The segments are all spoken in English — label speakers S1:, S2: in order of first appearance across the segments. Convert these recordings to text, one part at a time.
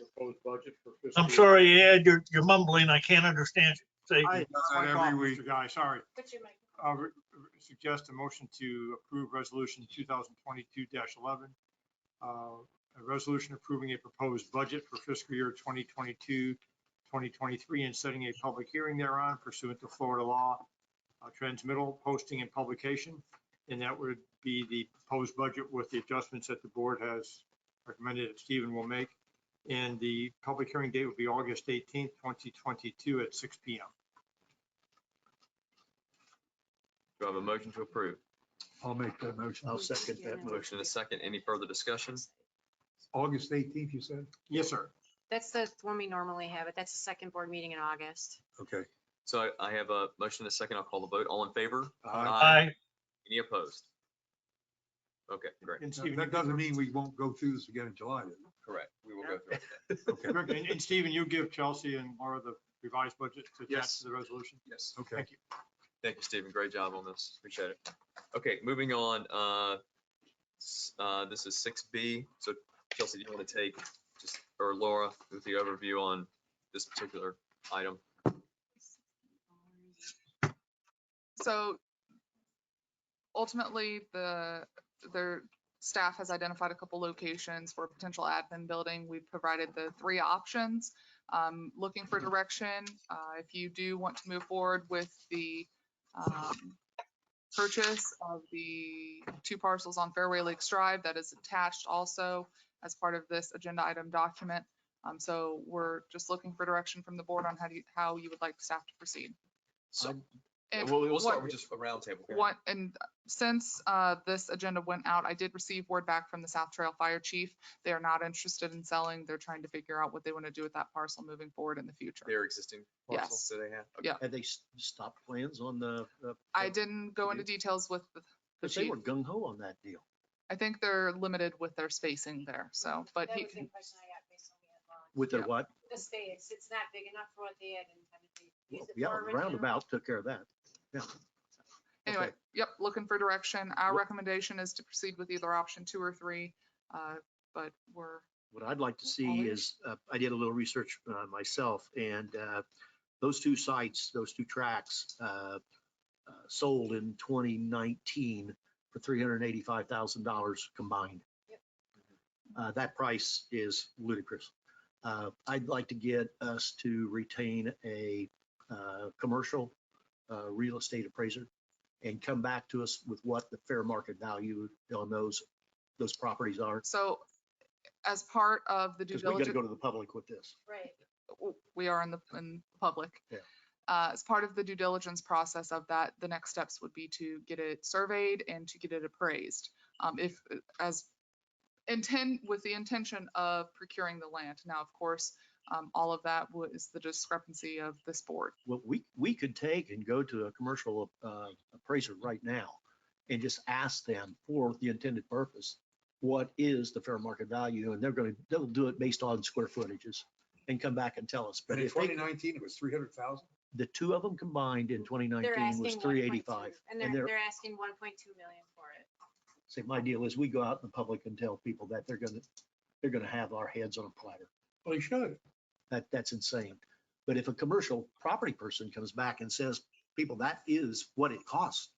S1: proposed budget for fiscal.
S2: I'm sorry, Ed, you're, you're mumbling. I can't understand.
S1: I-
S2: you. Say,
S1: that's my
S3: every
S1: fault,
S3: week.
S1: Mr. Guy, sorry.
S4: Put your mic.
S1: I'll re- re- suggest a motion to approve resolution two thousand twenty-two eleven. Uh, A resolution approving a proposed budget for fiscal year 2022-2023 and setting a public hearing thereon pursuant to Florida law. uh, Transmittal, posting and publication, and that would be the proposed budget with the adjustments that the board has recommended that Stephen will make. And the public hearing date would be August eighteenth, twenty twenty-two at six P M.
S3: Do I have a motion to approve?
S5: I'll make that motion.
S2: I'll second that motion.
S3: Motion and a second. Any further discussion?
S5: August eighteenth, you said?
S1: Yes, sir.
S4: That's the one we normally have, but that's the second board meeting in August.
S5: Okay.
S3: So I- I have a motion and a second. I'll call the vote. All in favor?
S5: Uh,
S2: I,
S3: Any opposed? Okay, great.
S1: And Stephen,
S5: That doesn't mean we won't go through this again in July. does it?
S3: Correct. We will go through it.
S5: Okay,
S1: Rick, And and Stephen, you give Chelsea and Laura the revised budget to attach
S3: Yes.
S1: to the resolution?
S3: Yes.
S5: okay.
S1: Thank you.
S3: Thank you, Stephen. Great job on this. Appreciate it. Okay, moving on. uh, s- uh, This is six B. So Chelsea, do you want to take, just, or Laura, with the overview on this particular item?
S6: So ultimately, the, their staff has identified a couple locations for a potential admin building. We've provided the three options. Um, looking for direction, uh, if you do want to move forward with the, um, purchase of the two parcels on Fairway Lakes Drive that is attached also as part of this agenda item document. Um, so we're just looking for direction from the board on how do you, how you would like staff to proceed.
S3: So,
S6: And
S3: we'll we'll
S6: Um, what-
S3: start with just a roundtable. here.
S6: one, and since uh, this agenda went out, I did receive word back from the South Trail Fire Chief. They are not interested in selling. They're trying to figure out what they want to do with that parcel moving forward in the future.
S3: Their existing parcels
S6: Yes.
S3: that they have? Okay.
S6: Yeah.
S2: had they s- stopped plans on the? the-
S6: I didn't go into
S2: Mhm.
S6: details with, the-
S2: Cause they were gung ho on that deal.
S6: I think they're limited with their spacing there, so, but
S4: That
S6: he,
S4: was the question I got based on the headline.
S2: With their
S6: Yeah.
S2: what?
S4: The space, it's not big enough for what they had intended to use
S2: Well,
S4: it
S2: Yeah,
S4: for originally.
S2: roundabout took care of that. Yeah.
S6: anyway,
S2: Okay.
S6: yep, looking for direction. Our
S2: Wha-
S6: recommendation is to proceed with either option two or three, uh, but we're,
S2: What I'd like to see is, uh, I did a little research uh, myself and uh, those two sites, those two tracks uh, uh, sold in 2019 for $385,000 combined.
S4: Yep.
S2: Uh, That price is ludicrous. Uh, I'd like to get us to retain a uh, commercial uh, real estate appraiser and come back to us with what the fair market value on those, those properties are.
S6: so as part of the due
S2: Because we gotta
S6: diligence.
S2: go to the public with this.
S4: Right.
S6: w- we are in the, in public.
S2: Yeah.
S6: Uh, as part of the due diligence process of that, the next steps would be to get it surveyed and to get it appraised. Um, if, as intend, with the intention of procuring the land. Now, of course, um, all of that wa- is the discrepancy of this board.
S2: What we, we could take and go to a commercial uh, appraiser right now and just ask them for the intended purpose, what is the fair market value? And they're gonna, they'll do it based on square footages and come back and tell us. But
S5: But in
S2: if they,
S5: twenty nineteen, it was three hundred thousand?
S2: the two of them combined in twenty
S4: They're
S2: nineteen was
S4: asking 1.2
S2: three eighty-five.
S4: And
S2: and
S4: they're,
S2: they're-
S4: they're asking one point two million for it.
S2: So my deal is we go out in the public and tell people that they're gonna, they're gonna have our heads on a platter.
S5: Well, you should.
S2: That, that's insane. But if a commercial property person comes back and says, people, that is what it costs,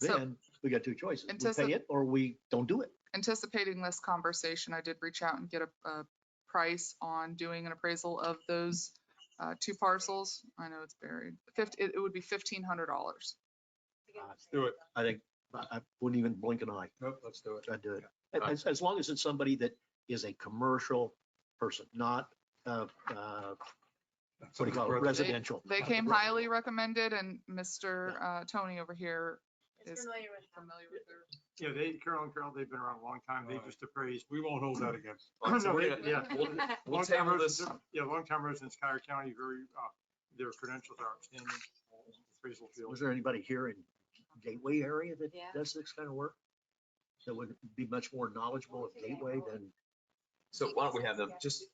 S6: So-
S2: then we got two choices. We
S6: Antici-
S2: pay it or we don't do it.
S6: anticipating this conversation, I did reach out and get a, a price on doing an appraisal of those uh, two parcels. I know it's buried. Fifty, it it would be fifteen hundred dollars.
S4: to get
S2: Ah,
S4: the
S5: do
S4: same
S5: it.
S4: done.
S2: I think, I, I wouldn't even blink an eye.
S5: Nope, let's do it.
S2: I'd do it.
S3: Yeah.
S2: As, as long as it's somebody that is a commercial person, not, uh, uh, what do you call it, residential.
S6: They came highly recommended and Mr. uh, Tony over here
S4: It's
S6: is
S4: familiar with them.
S6: familiar with their
S1: Yeah, they, Carol and Carol, they've been around a long time. They
S5: Alright.
S1: just appraised.
S5: We won't hold that against.
S3: All right, so
S1: No,
S3: we're
S1: yeah,
S3: gonna-
S1: yeah.
S3: we'll- We'll
S1: Long-time
S3: table this.
S1: residents- Yeah, long-time residents of Skyler County, very, uh, their credentials are outstanding. Appraisal field.
S2: Was there anybody here in Gateway area that
S4: Yeah.
S2: does this kind of work? That would be much more knowledgeable of Gateway than
S3: So why don't we have them, just,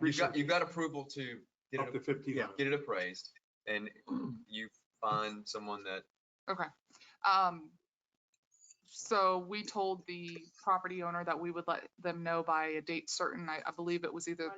S3: you've got, you've got approval to get
S5: Up
S3: it,
S5: to fifteen
S2: Yeah.
S5: hundred.
S3: get it appraised and you find someone that
S6: Um, so we told the property owner that we would let them know by a date certain. I, I believe it was either